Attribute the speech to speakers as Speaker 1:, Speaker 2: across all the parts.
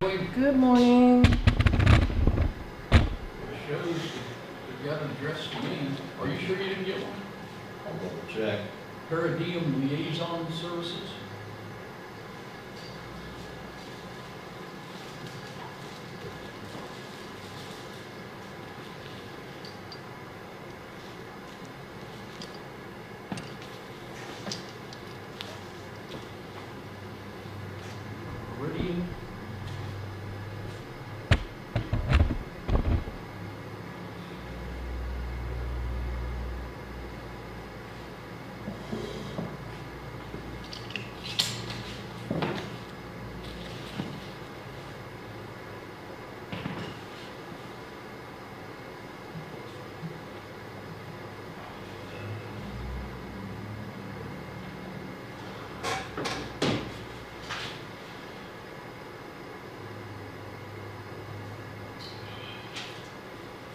Speaker 1: Good morning.
Speaker 2: Shows you got an address to me. Are you sure you didn't get one?
Speaker 3: I'll double check.
Speaker 2: Peridium Liaison Services? Peridium?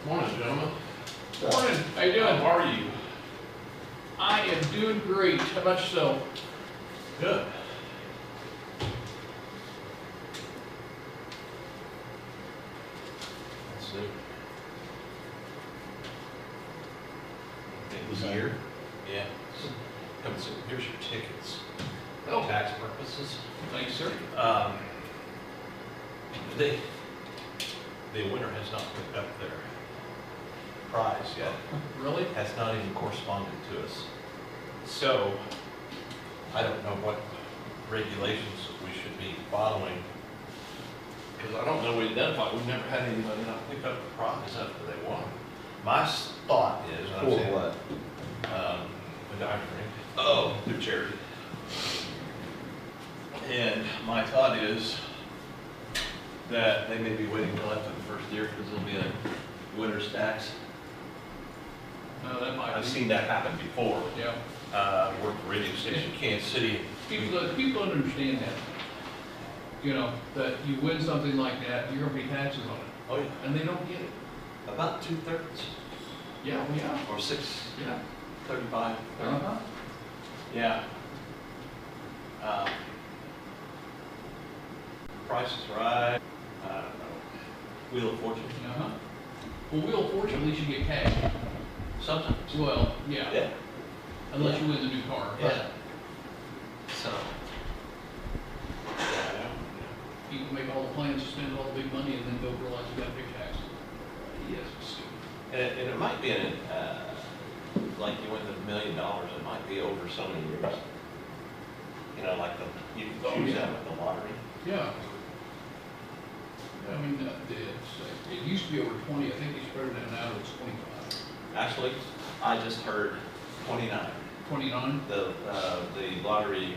Speaker 4: Morning, gentlemen.
Speaker 2: Morning, how you doing?
Speaker 4: How are you?
Speaker 2: I am doing great. How about yourself?
Speaker 4: Good. Let's see.
Speaker 3: It was here.
Speaker 4: Yeah. Come see, here's your tickets.
Speaker 2: Oh.
Speaker 4: Tax purposes.
Speaker 2: Thanks, sir.
Speaker 4: Um, they, the winner has not picked up their prize yet.
Speaker 2: Really?
Speaker 4: Has not even corresponded to us. So, I don't know what regulations we should be following. Because I don't know we identify, we've never had anybody not pick up the prize after they won. My s- thought is, and I'm
Speaker 3: For
Speaker 4: saying,
Speaker 3: what?
Speaker 4: um, the diamond ring. Oh, through charity. And my thought is that they may be waiting till after the first year because there'll be a winner's tax.
Speaker 2: No, that might
Speaker 4: I've
Speaker 2: be.
Speaker 4: seen that happen before.
Speaker 2: Yeah.
Speaker 4: Uh, I worked for radio station Kansas City.
Speaker 2: People, don't- people don't understand that. You know, that you win something like that, you're gonna pay taxes on it,
Speaker 4: Oh, yeah.
Speaker 2: and they don't get it.
Speaker 4: About two thirds
Speaker 2: Yeah, we are.
Speaker 4: or six
Speaker 2: Yeah.
Speaker 4: thirty-five.
Speaker 2: Uh-huh.
Speaker 4: Yeah. Um, Price is right. I don't know. Wheel of Fortune.
Speaker 2: Uh-huh. Well, Wheel of Fortune, at least you get cash.
Speaker 4: Sometimes.
Speaker 2: Well, yeah,
Speaker 4: Yeah.
Speaker 2: unless you win the new car.
Speaker 4: Yeah. So. Yeah, I don't know.
Speaker 2: You can make all the plans, spend all the big money, and then go realize you gotta pay taxes. Yes, it's stupid.
Speaker 4: And it, and it might be in, uh, like you win the million dollars, it might be over so many years. You know, like the, you
Speaker 2: Oh,
Speaker 4: choose
Speaker 2: yeah.
Speaker 4: that with the lottery.
Speaker 2: Yeah. I mean, uh, it's, it used to be over twenty, I think they spread it out now, it's twenty-five,
Speaker 4: Actually, I just heard twenty-nine.
Speaker 2: twenty-nine.
Speaker 4: The, uh, the lottery,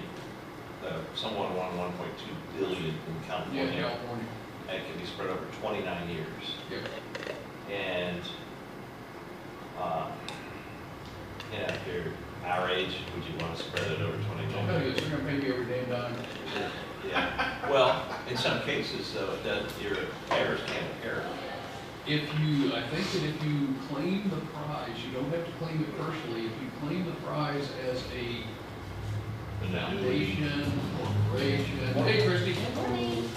Speaker 4: uh, someone won one point two billion in
Speaker 2: Yeah,
Speaker 4: California.
Speaker 2: California.
Speaker 4: And it can be spread over twenty-nine years.
Speaker 2: Yeah.
Speaker 4: And, um, you know, if you're our age, would you want to spread it over
Speaker 2: I'll
Speaker 4: twenty-nine
Speaker 2: tell
Speaker 4: years?
Speaker 2: you, they're gonna pay me every damn dime.
Speaker 4: Yeah, well, in some cases, though, it does, your heirs can't inherit.
Speaker 2: If you, I think that if you claim the prize, you don't have to claim it personally, if you claim the prize as a
Speaker 4: And now-
Speaker 2: foundation, corporation, hey Christie.
Speaker 5: Morning.